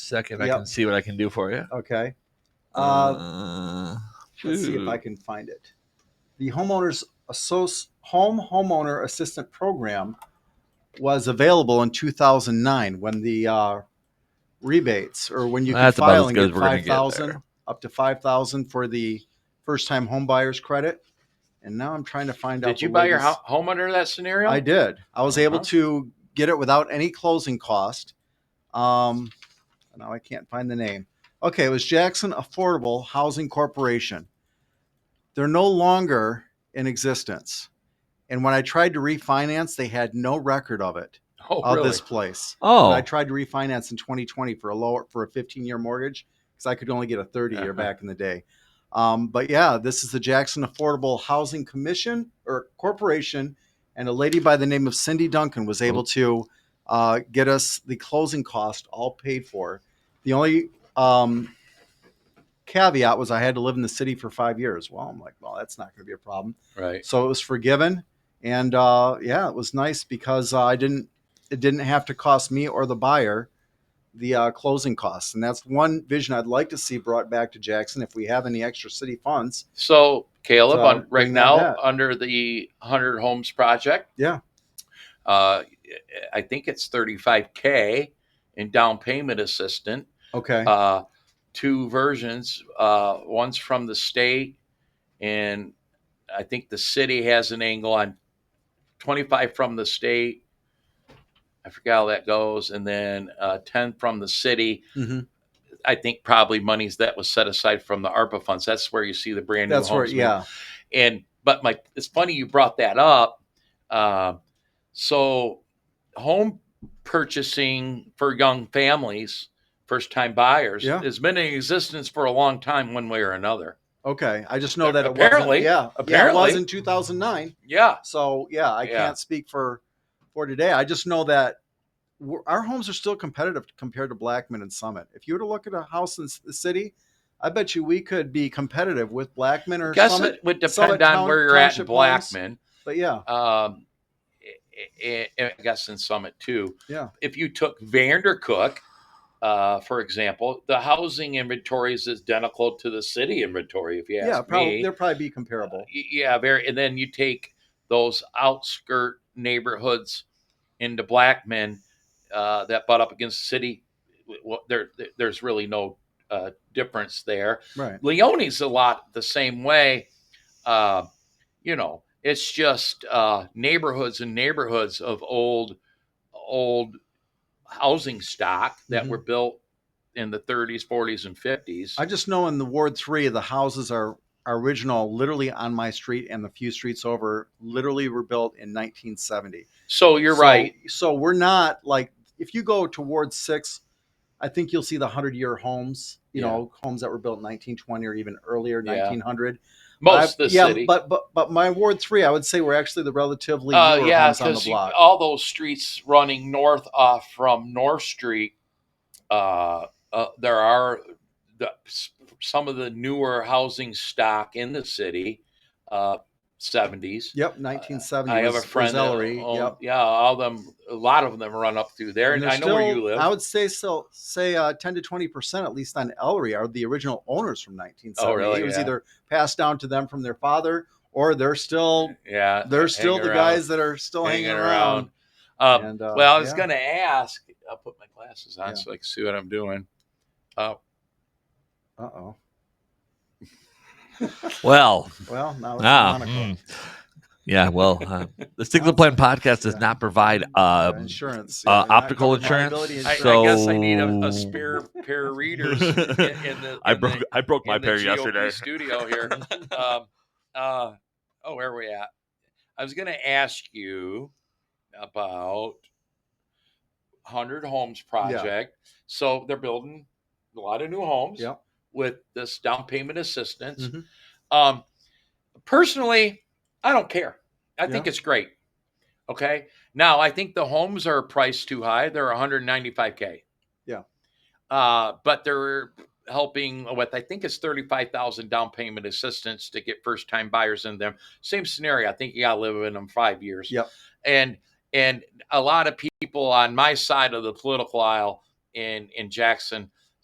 second. I Yep. can see what I can do for you. Okay. Uh, Oh, Uh, let's see if I shoot. can find it. The homeowners associ- home homeowner assistant program was available in 2009 when the uh, rebates or when you That's could about as file and good get as we're gonna get 5000 there. up to 5000 for the first time home buyers credit. And now I'm trying to find out Did you the buy your latest- ho- home under that scenario? I did. I was able Uh-huh. to get it without any closing cost. Um, now I can't find the name. Okay, it was Jackson Affordable Housing Corporation. They're no longer in existence. And when I tried to refinance, they had no record of it Oh, of really? this place. oh, I tried to refinance in 2020 for a lower for a 15 year mortgage because I could only get a 30 year Uh-huh. back in the day. Um, but yeah, this is the Jackson Affordable Housing Commission or Corporation, and a lady by the name of Cindy Duncan was able to uh, get us the closing cost all paid for. The only um, caveat was I had to live in the city for five years. Well, I'm like, well, that's not going to be a problem. Right. So it was forgiven, and uh, yeah, it was nice because uh, I didn't. It didn't have to cost me or the buyer the uh, closing costs, and that's one vision I'd like to see brought back to Jackson if we have any extra city funds. So Caleb, So, on, right bring now that back. under the Hundred Homes Project, Yeah. uh, I think it's thirty-five k in down payment assistant. Okay. Uh, two versions. Uh, one's from the state, and I think the city has an angle on twenty-five from the state. I forgot how that goes, and then uh, ten from the city. Mhm. I think probably monies that was set aside from the ARPA funds. That's where you see the brand new That's where, homes. yeah. And but my it's funny you brought that up. Um, so home purchasing for young families, first time buyers, Yeah. has been in existence for a long time, one way or another. Okay, I just know that it wasn't, Apparently- yeah, yeah, it was apparently. in 2009. Yeah, So yeah, I Yeah. can't speak for for today. I just know that we're, our homes are still competitive compared to Blackman and Summit. If you were to look at a house in s- the city, I bet you we could be competitive with Blackman or guess Summit. it would some depend town- on where you're at in township homes. Blackman. But yeah, Um, I, I guess in Summit too. Yeah. If you took Vandercook, uh, for example, the housing inventory is identical to the city inventory. If you ask yeah, me, Uh, probably they'll probably be comparable. Y- yeah very and then you take those outskirt neighborhoods into blackmen uh, that butt up against the city w- w- there there- there's really no uh, difference there Right. leone's a lot the same way uh, you know it's just uh, neighborhoods and neighborhoods of old old housing stock that Mhm. were built in the 30s 40s and 50s I just know in the Ward Three, the houses are are original, literally on my street and the few streets over, literally were built in 1970. so you're So- right So we're not like if you go towards six, I think you'll see the hundred year homes. You Yeah. know, homes that were built in 1920 or even earlier, Yeah. 1900. most I- of the yeah, city but but but my ward three, I would say we're actually the relatively Uh, newer yeah, homes on the because block. all those streets running north off from North Street, uh, uh, there are the, s- some of the newer housing stock in the city, uh, 70s. yep, 1970. uh, I have a was- was friend. that Ellery, own- yep. Yeah, all them, a lot of them run up through there, and, they're I know where still- you live. I would say so. Say uh, ten to twenty percent, at least on Ellery, are the original owners from 1970. Oh, really? It was Yeah. either passed down to them from their father, or they're still yeah, they're still hang the around, guys that are still hanging, hanging around. around. Um, And, uh, well, I was yeah. going to ask. I'll put my glasses on Yeah. so I can see what I'm doing. Uh oh. well, Well, now it's ah, Monaco. mm. yeah. Well, uh, the Stigler Plan podcast does Yeah. not provide um, insurance, uh, you're not optical covered by insurance, liability I, insurance. I guess I need a, So- a spare pair of readers. In, the, I in broke the, I broke my in the pair GOP yesterday. Studio here. um, uh, oh, where are we at? I was going to ask you about Hundred Homes Project. So they're building a lot of new homes Yep. with this down payment assistance. Mhm. Um, personally, I don't care. I think Yeah. it's great. Okay. Now I think the homes are priced too high. They're 195k. Yeah. Uh, but they're helping with I think it's 35,000 down payment assistance to get first time buyers in them. Same scenario. I think you got to live in them five years. Yep. And and a lot of people on my side of the political aisle in in Jackson